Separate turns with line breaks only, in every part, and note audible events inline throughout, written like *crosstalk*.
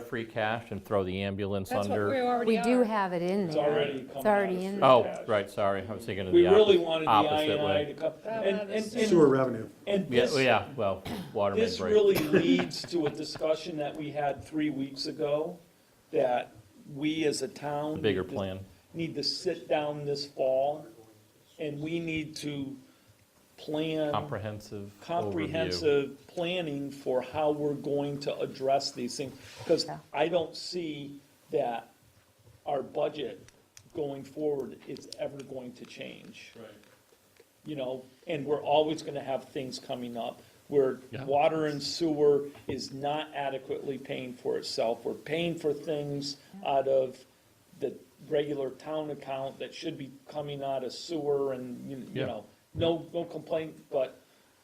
free cash and throw the ambulance
That's what we
under?
already
We do
are.
have it in there.
It's already
It's
coming
already
out of
in
free
there.
Oh,
cash.
right, sorry, I was thinking of
We
the
really
opposite,
wanted the
opposite
INI
way.
to come,
Oh,
and,
no,
and,
this
and-
is-
sewer revenue.
and
Yeah,
this,
well, yeah, well, water main
this
break.
really leads to a discussion that we had three weeks ago, that we as a town.
The bigger
need to-
plan.
Need to sit down this fall, and we need to plan
Comprehensive overview.
comprehensive planning for how we're going to address these things. Because
Yeah.
I don't see that our budget going forward is ever going to change. Right. You know, and we're always gonna have things coming up where
Yeah.
water and sewer is not adequately paying for itself. We're paying for things out of the regular town account that should be coming out of sewer and, you- you
Yeah.
know, no, no complaint, but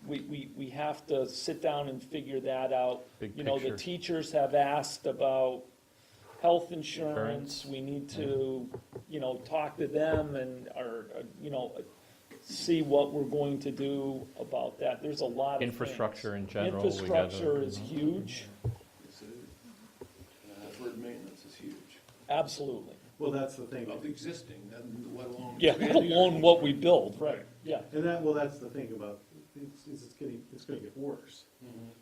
we, we, we have to sit down and figure that out.
Big
You know, the
picture.
teachers have asked about health
Insurance,
insurance,
Mm-hmm.
we need to, you know, talk to them and, or, uh, you know, see what we're going to do about that, there's a lot of things.
Infrastructure in general, we gotta- Mm-hmm.
Infrastructure is huge,
Deferred uh, maintenance is huge.
absolutely,
Well, that's the thing.
Of the existing, then let alone.
yeah, let *laughs* alone what we build, right, yeah,
And that, well, that's the thing about, it's, it's getting, it's gonna get worse.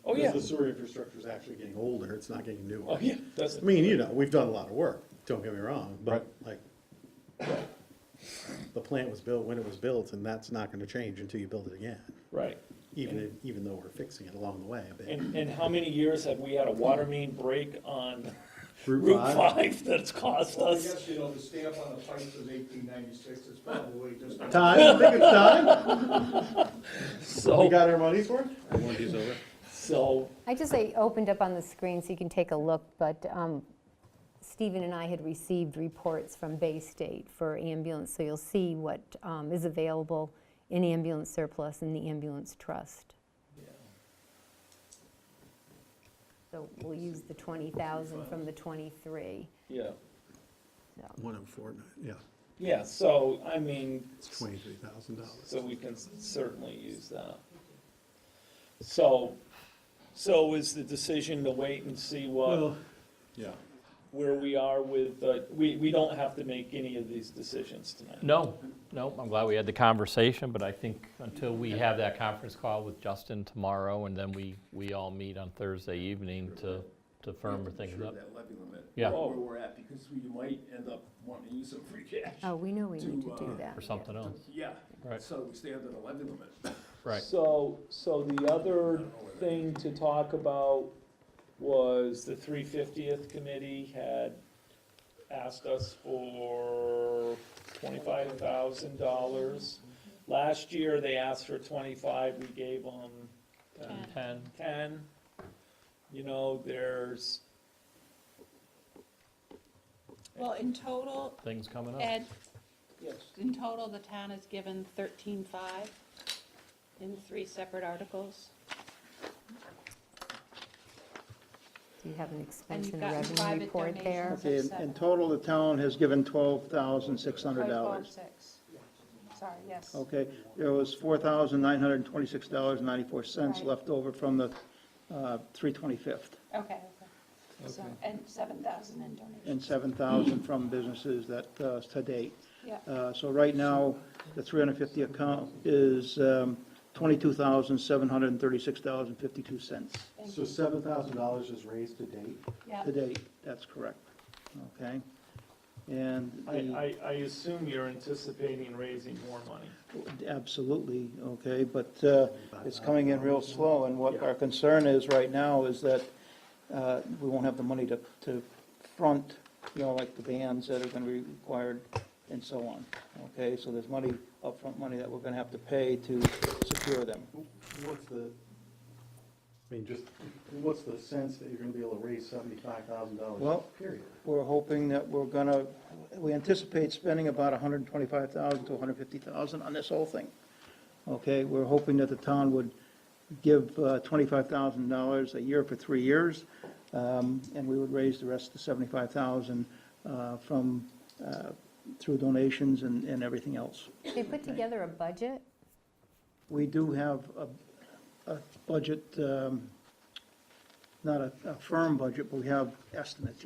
oh, yeah,
Because the sewer infrastructure is actually getting older, it's not getting newer.
oh, yeah,
I
doesn't,
mean, you know, we've done a lot of work, don't get me wrong, but like, the plant was built when it was built, and that's not gonna change until you build it again,
right.
even, if- even though we're fixing it along the way a bit.
And, and how many years have we had a water main break on
Route
Route
five,
Five that's cost
I
us?
guess, you know, the stamp on the pipes is eighteen ninety-six, it's probably just.
time, I think it's time, we
So,
got our money's worth?
so,
I just, I opened up on the screen so you can take a look, but um, Stephen and I had received reports from Bay State for ambulance, so you'll see what um, is available in ambulance surplus and the ambulance trust. So we'll use the 20,000 from the 23.
yeah,
so.
One oh four, nine, yeah,
yeah, so, I mean,
it's twenty-three thousand dollars.
so we can certainly use that. So, so is the decision to wait and see what,
Well, yeah.
where we are with, uh, we, we don't have to make any of these decisions tonight.
No, no, I'm glad we had the conversation, but I think until we have that conference call with Justin tomorrow, and then we, we all meet on Thursday evening to, to firm things
Sure,
up.
That levy limit.
Yeah.
Where we're at, because we might end up wanting to use some free cash.
Oh, we know we need
To,
to do
uh,
that.
Or something else,
Yeah,
right,
so we stay under the levy limit.
right.
So, so the other thing to talk about was the three fiftieth committee had asked us for twenty-five thousand dollars. Last year, they asked for twenty-five, we gave them
Ten.
Ten,
ten. You know, there's,
Well, in total,
things coming up.
Ed,
yes,
in total, the town has given thirteen-five in three separate articles.
Do you have an
And
expense
you've
and a
gotten
revenue
private
report
donations
there?
of
Okay, in- in
seven.
total, the town has given twelve thousand six
Or
hundred dollars. Oh.
12,600. Sorry, yes.
Okay, there was four thousand nine hundred and twenty-six dollars and ninety-four cents
Right.
left over from the, uh, three twenty-fifth,
Okay, okay. So, and seven thousand in donations,
and seven thousand from businesses that, uh, to date.
yeah.
Uh, So right now, the 350 account is um, $22,736.52
Thank
So seven thousand dollars is raised to date?
Yeah,
to date. That's correct. Okay? And the-
I, I, I assume you're anticipating raising more money.
absolutely, okay, but uh, it's coming in real slow. And what our concern is right now is that uh, we won't have the money to, to front, you know, like the bands that are going to be required and so on. Okay? So there's money, upfront money that we're going to have to pay to secure them.
What's the, I mean, just, what's the sense that you're gonna be able to raise seventy-five thousand dollars,
Well-
period?
We're hoping that we're gonna, we anticipate spending about hundred and twenty-five thousand to hundred and fifty thousand on this whole thing. Okay, we're hoping that the town would give uh, twenty-five thousand dollars a year for three years, um, and we would raise the rest of the seventy-five thousand, uh, from, uh, through donations and, and everything else.
They put together a budget?
We do have a, a budget, um, not a, a firm budget, but we have estimates,